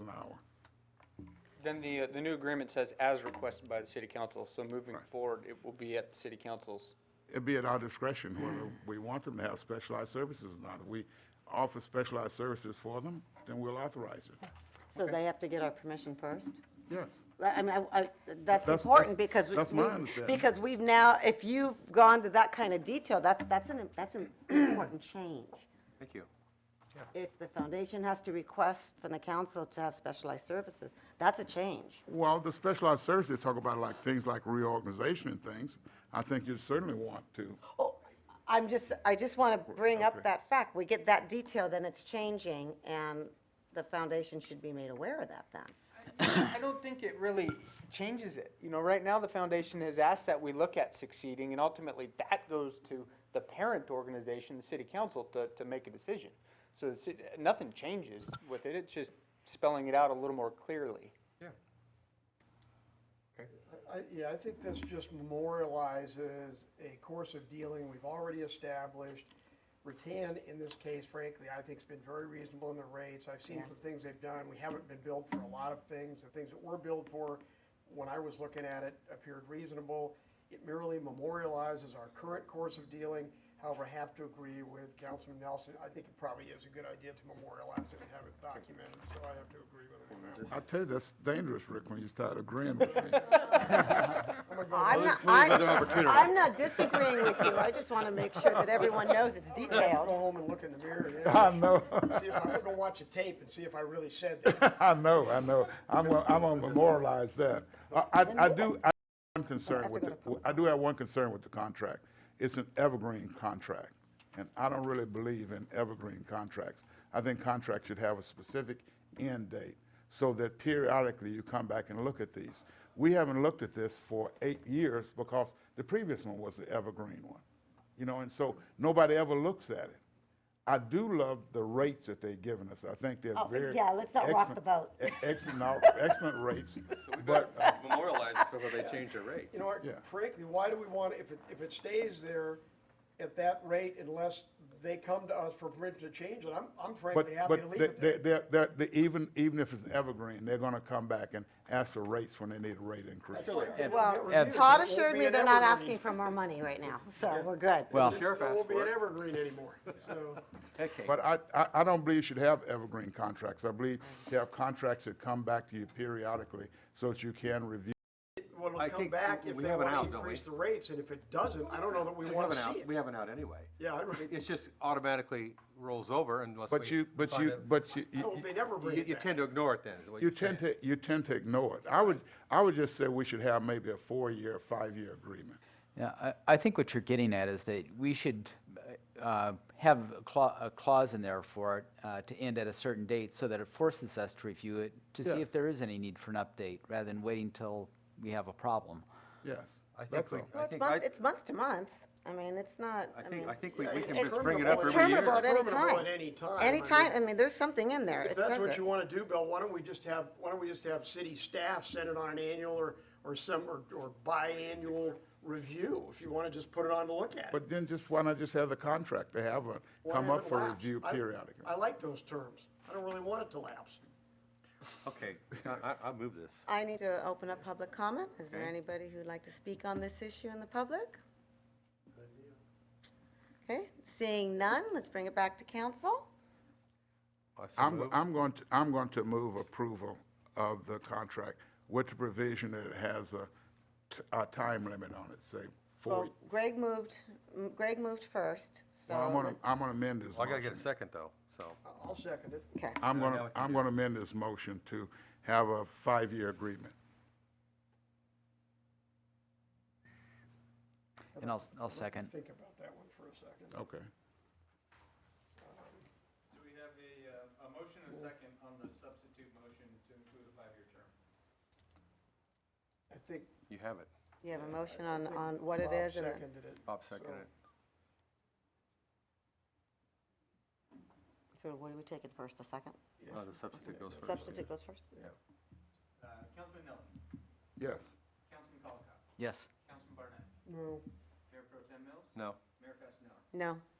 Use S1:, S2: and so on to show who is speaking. S1: an hour.
S2: Then the, uh, the new agreement says as requested by the city council, so moving forward, it will be at the city council's.
S1: It'd be at our discretion whether we want them to have specialized services or not. If we offer specialized services for them, then we'll authorize it.
S3: So they have to get our permission first?
S1: Yes.
S3: I mean, I- I- that's
S1: that's-
S3: important because.
S1: that's
S3: we-
S1: my understanding.
S3: Because we've now, if you've gone to that kind of detail, that, that's an, that's an important change.
S2: Thank you.
S3: If the foundation has to request from the council to have specialized services, that's a change.
S1: Well, the specialized services talk about like things like reorganization and things. I think you certainly want to.
S3: Oh, I'm just, I just want to bring
S1: Okay.
S3: up that fact. We get that detail, then it's changing, and the foundation should be made aware of that then.
S2: I don't think it really changes it. You know, right now, the foundation has asked that we look at succeeding, and ultimately, that goes to the parent organization, the city council, to, to make a decision. So the ci- nothing changes with it, it's just spelling it out a little more clearly.
S4: I, yeah, I think this just memorializes a course of dealing we've already established. Rattan, in this case, frankly, I think's been very reasonable in the rates. I've seen some things they've done. We haven't been billed for a lot of things. The things that were billed for, when I was looking at it, appeared reasonable. It merely memorializes our current course of dealing. However, I have to agree with Councilman Nelson. I think it probably is a good idea to memorialize it and have it documented, so I have to agree with him on that.
S1: I tell you, that's dangerous, Rick, when you start agreeing with me.
S3: I'm not, I'm, I'm not disagreeing with you, I just want to make sure that everyone knows it's
S4: I'll go
S3: detailed.
S4: home and look in the mirror. I know. See if, I'm gonna watch a tape and see if I really said that.
S1: I know, I know. I'm, gonna- I'm gonna memorialize that. I, I I do, I, I'm concerned with, the- I do have one concern with the contract. It's an evergreen contract, and I don't really believe in evergreen contracts. I think contracts should have a specific end date, so that periodically you come back and look at these. We haven't looked at this for eight years because the previous one was the evergreen one, you know, and so nobody ever looks at it. I do love the rates that they've given us. I think they're
S3: Oh,
S1: very.
S3: yeah, let's not rock the
S1: excellent-
S3: boat.
S1: e- Excellent, no, excellent rates, but
S5: uh, memorialize it before they change their rates.
S4: You know,
S1: Yeah.
S4: what, frankly, why do we want, if it, if it stays there at that rate unless they come to us for permission to change it, I'm, I'm
S1: But,
S4: frankly happy to
S1: but
S4: leave
S1: they,
S4: it
S1: they,
S4: there.
S1: they're- they're, they, even, even if it's an evergreen, they're gonna come back and ask for rates when they need a rate increase.
S4: Frankly, it'll get
S3: Well,
S4: reviewed.
S3: Todd
S4: It won't
S3: assured
S4: be
S3: me
S4: an
S3: they're not
S4: evergreen.
S3: asking for more money right now, so we're good.
S5: Well,
S4: It won't be an evergreen anymore, so.
S1: But I, I, I don't believe you should have evergreen contracts. I believe you have contracts that come back to you periodically so that you can review.
S4: Well,
S5: I
S4: it'll come
S5: think
S4: back if
S5: we
S4: they
S5: have an
S4: wanna
S5: out, don't
S4: increase the
S5: we?
S4: rates, and if it doesn't, I don't know that we
S5: We have
S4: wanna
S5: an
S4: see
S5: out, we
S4: it.
S5: have an out anyway.
S4: Yeah, I don't,
S5: It- It's just automatically rolls over unless we.
S1: But you, but
S5: find
S1: you,
S5: out-
S1: but you. you-
S4: no, they never bring
S5: You,
S4: it
S5: you
S4: back.
S5: tend to ignore it then, is what
S1: You
S5: you're
S1: tend
S5: saying.
S1: to, you tend to ignore it. I would, I would just say we should have maybe a four-year, five-year agreement.
S6: Yeah, I, I think what you're getting at is that we should uh, have a clause, a clause in there for it uh, to end at a certain date so that it forces us to review it to see if there is any need for an update rather than waiting till we have a problem.
S1: Yes,
S5: I think
S1: that's
S5: we-
S1: all.
S3: Well, it's
S5: think
S3: month,
S5: I-
S3: it's month to month, I mean, it's not,
S5: I
S3: I
S5: think,
S3: mean.
S5: I think we, we
S4: it's
S5: can just bring it up
S4: terminable.
S3: It's terminable
S5: every
S3: at
S5: year.
S3: any
S4: Terminable
S3: time.
S4: at any time, I mean-
S3: Anytime, I mean, there's something in there,
S4: If
S3: it
S4: that's
S3: says
S4: what
S3: it.
S4: you want to do, Bill, why don't we just have, why don't we just have city staff send it on an annual or, or some, or, or biannual review? If you want to just put it on to look at.
S1: But then just, why not just have the contract to have one
S4: Why
S1: come
S4: have
S1: up
S4: it
S1: for
S4: lapse?
S1: review
S4: I-
S1: periodically?
S4: I like those terms. I don't really want it to lapse.
S5: Okay, I, I, I move this.
S3: I need to open up public comment. Is there anybody who'd like to speak on this issue in the public? Okay, seeing none, let's bring it back to council.
S5: I so
S1: I'm,
S5: move.
S1: I'm going to, I'm going to move approval of the contract with the provision that it has a, t- a time limit on it, say, four.
S3: Well, Greg moved, m- Greg moved first, so.
S1: Well, I'm gonna, I'm gonna amend this
S5: Well, I gotta get a
S1: motion.
S5: second though, so.
S4: I'll second it.
S3: Okay,
S1: I'm
S5: Now
S1: gonna,
S5: we can
S1: I'm
S5: do
S1: gonna amend this motion to have a five-year agreement.
S6: And I'll, I'll second.
S4: Think about that one for a second.
S1: Okay.
S7: So we have a, uh, a motion and a second on the substitute motion to include a five-year term.
S4: I think
S5: You have it.
S3: you have a motion on, on what it
S4: Bob
S3: is and then-
S4: seconded it.
S5: Bob seconded it.
S3: so what do we take it first, the second?
S5: Uh, the substitute goes first.
S3: Substitute goes first?
S7: Uh, Councilman Nelson,
S1: Yes.
S7: Councilman Colacott,
S6: Yes.
S7: Councilman Barnett,
S4: No,
S7: Mayor Pro Tem Mills,
S5: No,
S7: Mayor Fasenelli.
S3: No.